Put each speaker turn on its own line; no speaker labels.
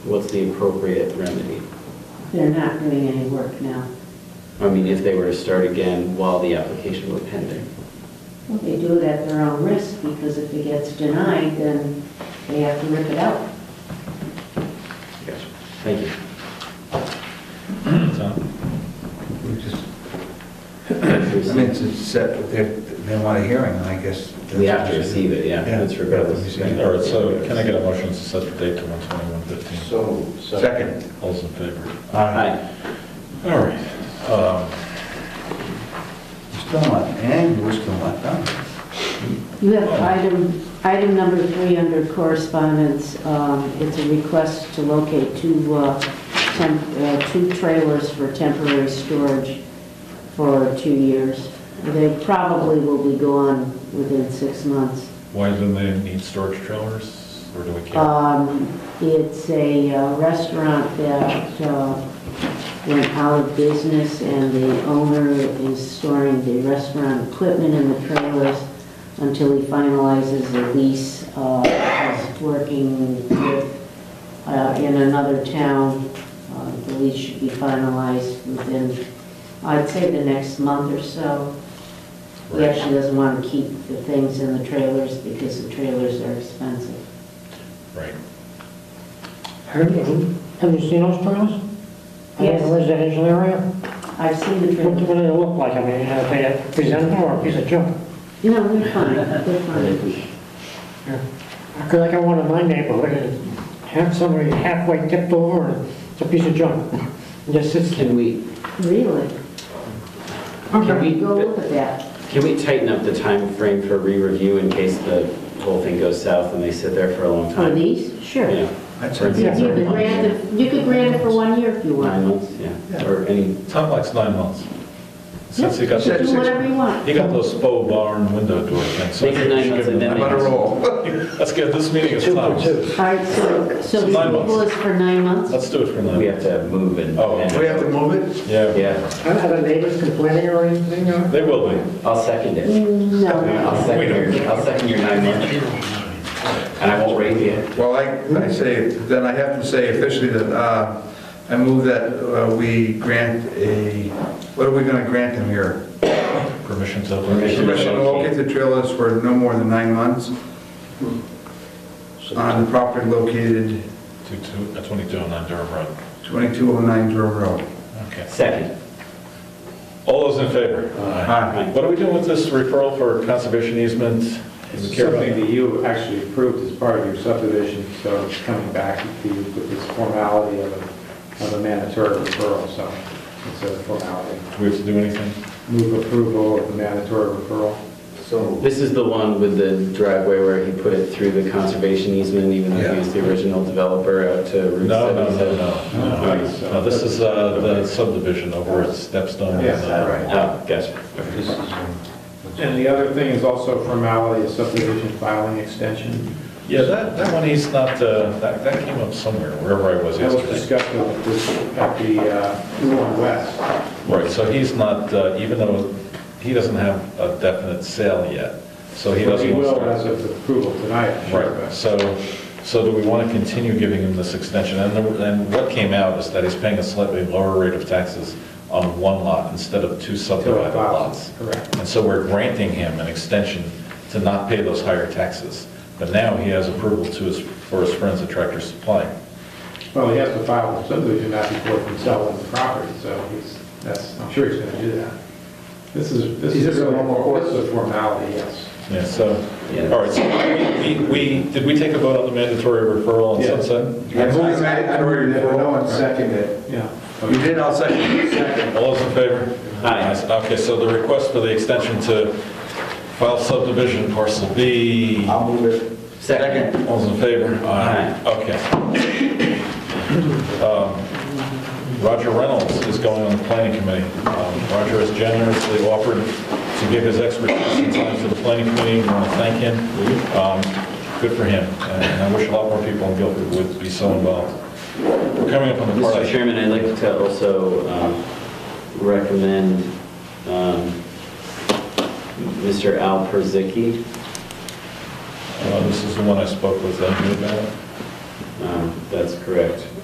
what's the appropriate remedy?
They're not doing any work now.
I mean, if they were to start again while the application were pending.
Well, They do it at their own risk, because if it gets denied, then they have to rip it out.
Gotcha. Thank you.
So,
We just, I mean,
We
it's a set, they, they want a hearing, and I guess.
have to receive it, yeah,
Yeah.
that's regardless.
Yeah.
All right, so can I get a motion to set the date to 1/21/15?
So. Second.
All's in favor?
Hi.
All right. Um,
We're Still not, and we're still not done.
You have item, item number three under correspondence. Um, It's a request to locate two, uh, temp- uh, two trailers for temporary storage for two years. They probably will be gone within six months.
Why do they need storage trailers, or do we care?
Uh,
Um, It's a uh, restaurant that uh, went out of business, and the owner is storing the restaurant equipment in the trailers until he finalizes the lease. Uh, He's working with, uh, in another town. Uh, The lease should be finalized within, I'd say, the next month or so. He
Right.
actually doesn't want to keep the things in the trailers because the trailers are expensive.
Right.
Have you have you seen those trailers? In
Yes.
the residential area?
I've seen the
What do
trailer.
they look like? I mean, are they a presentable or a piece of junk?
No, they're fine, they're fine.
Because I got one in my neighborhood and half somebody halfway tipped over and it's a piece of junk. It Just sits there.
Can we,
Really?
can we,
Go look at that.
can we tighten up the time frame for re-review in case the whole thing goes south and they sit there for a long
For
time?
these? Sure. You
Yeah,
That's
For
it.
Yeah.
could grant it, you could grant it for one year if you
nine
want.
months, yeah, or any,
Time likes nine months. Since he got,
Yeah.
Do
those-
whatever you want.
he got those faux barn window door things. so I
Make it
think we
nine
should
months
give
and
him-
I'm on a roll.
Let's get, this meeting is closed.
All right, so, so the
Nine months.
approval is for nine months?
Let's do it for
we
nine.
have to move and.
Oh,
and-
We have to move it?
Yeah,
Yeah,
Are the neighbors complaining or anything? or-
they will be.
I'll second it.
No.
I'll second your, I'll second your nine months. And I won't raise you.
Well, I, I say, then I have to say officially that, uh, I move that uh, we grant a, what are we gonna grant them here?
Permission to.
Permission.
Permission to locate the trailers for no more than nine months Hmm. on the property located
Two, two, uh, 2209 Durham Road.
2209 Durham oh Road.
Okay.
Second.
All those in favor?
Aye.
What are we doing with this referral for conservation easement? Do we
It's
care about
something
it?
that you actually approved as part of your subdivision, so it's coming back to you with this formality of a, of a mandatory referral, so it's a formality.
Do we have to do anything?
Move approval of the mandatory referral.
This is the one with the driveway where he put it through the conservation easement, even though he was the original developer out to Route
No, no, no,
77?
no, no. No, this is uh, the subdivision over at Stepstone.
Yes,
Uh,
Oh, gotcha.
And the other thing is also formality, a subdivision filing extension.
Yeah, that, that one, he's not, uh, that, that came up somewhere, wherever I was
That was
yesterday.
discussed at this- at the, uh, Huron West.
Right, so he's not, uh, even though he doesn't have a definite sale yet, so he doesn't.
He
want to
will
start-
as of approval tonight, I'm sure,
Right,
but-
so, so do we want to continue giving him this extension? And, the- and what came out is that he's paying a slightly lower rate of taxes on one lot instead of two subdivided
Till it files,
lots.
correct.
And so we're granting him an extension to not pay those higher taxes. But now he has approval to his, for his friends at Tractor Supply.
Well, he has to file a subdivision map before he can sell the property, so he's, that's, I'm sure he's going to do that. This is, this
Is
is
this a
really,
normal course?
this is a formality, yes.
Yeah, so,
Yeah.
all right, so we, we, did we take a vote on the mandatory referral on
Yeah.
Sunset?
I move the mandatory referral.
seconded.
You
Yeah.
did, I'll second.
All those in favor?
Aye.
Okay, so the request for the extension to file subdivision parcel B, all
I'll move it.
Second.
those in favor?
Aye.
Okay. Um, Roger Reynolds is going on the planning committee. Um, Roger has generously offered to give his expertise and time to the planning committee. We want to thank him. Um, Good for him, and I wish a lot more people in Guilford would be so involved. We're coming up on the part I
Mr. Chairman, I'd like to also um, recommend um, Mr. Al Perzicki.
Uh, This is the one I spoke with uh, you about.
Um, That's correct.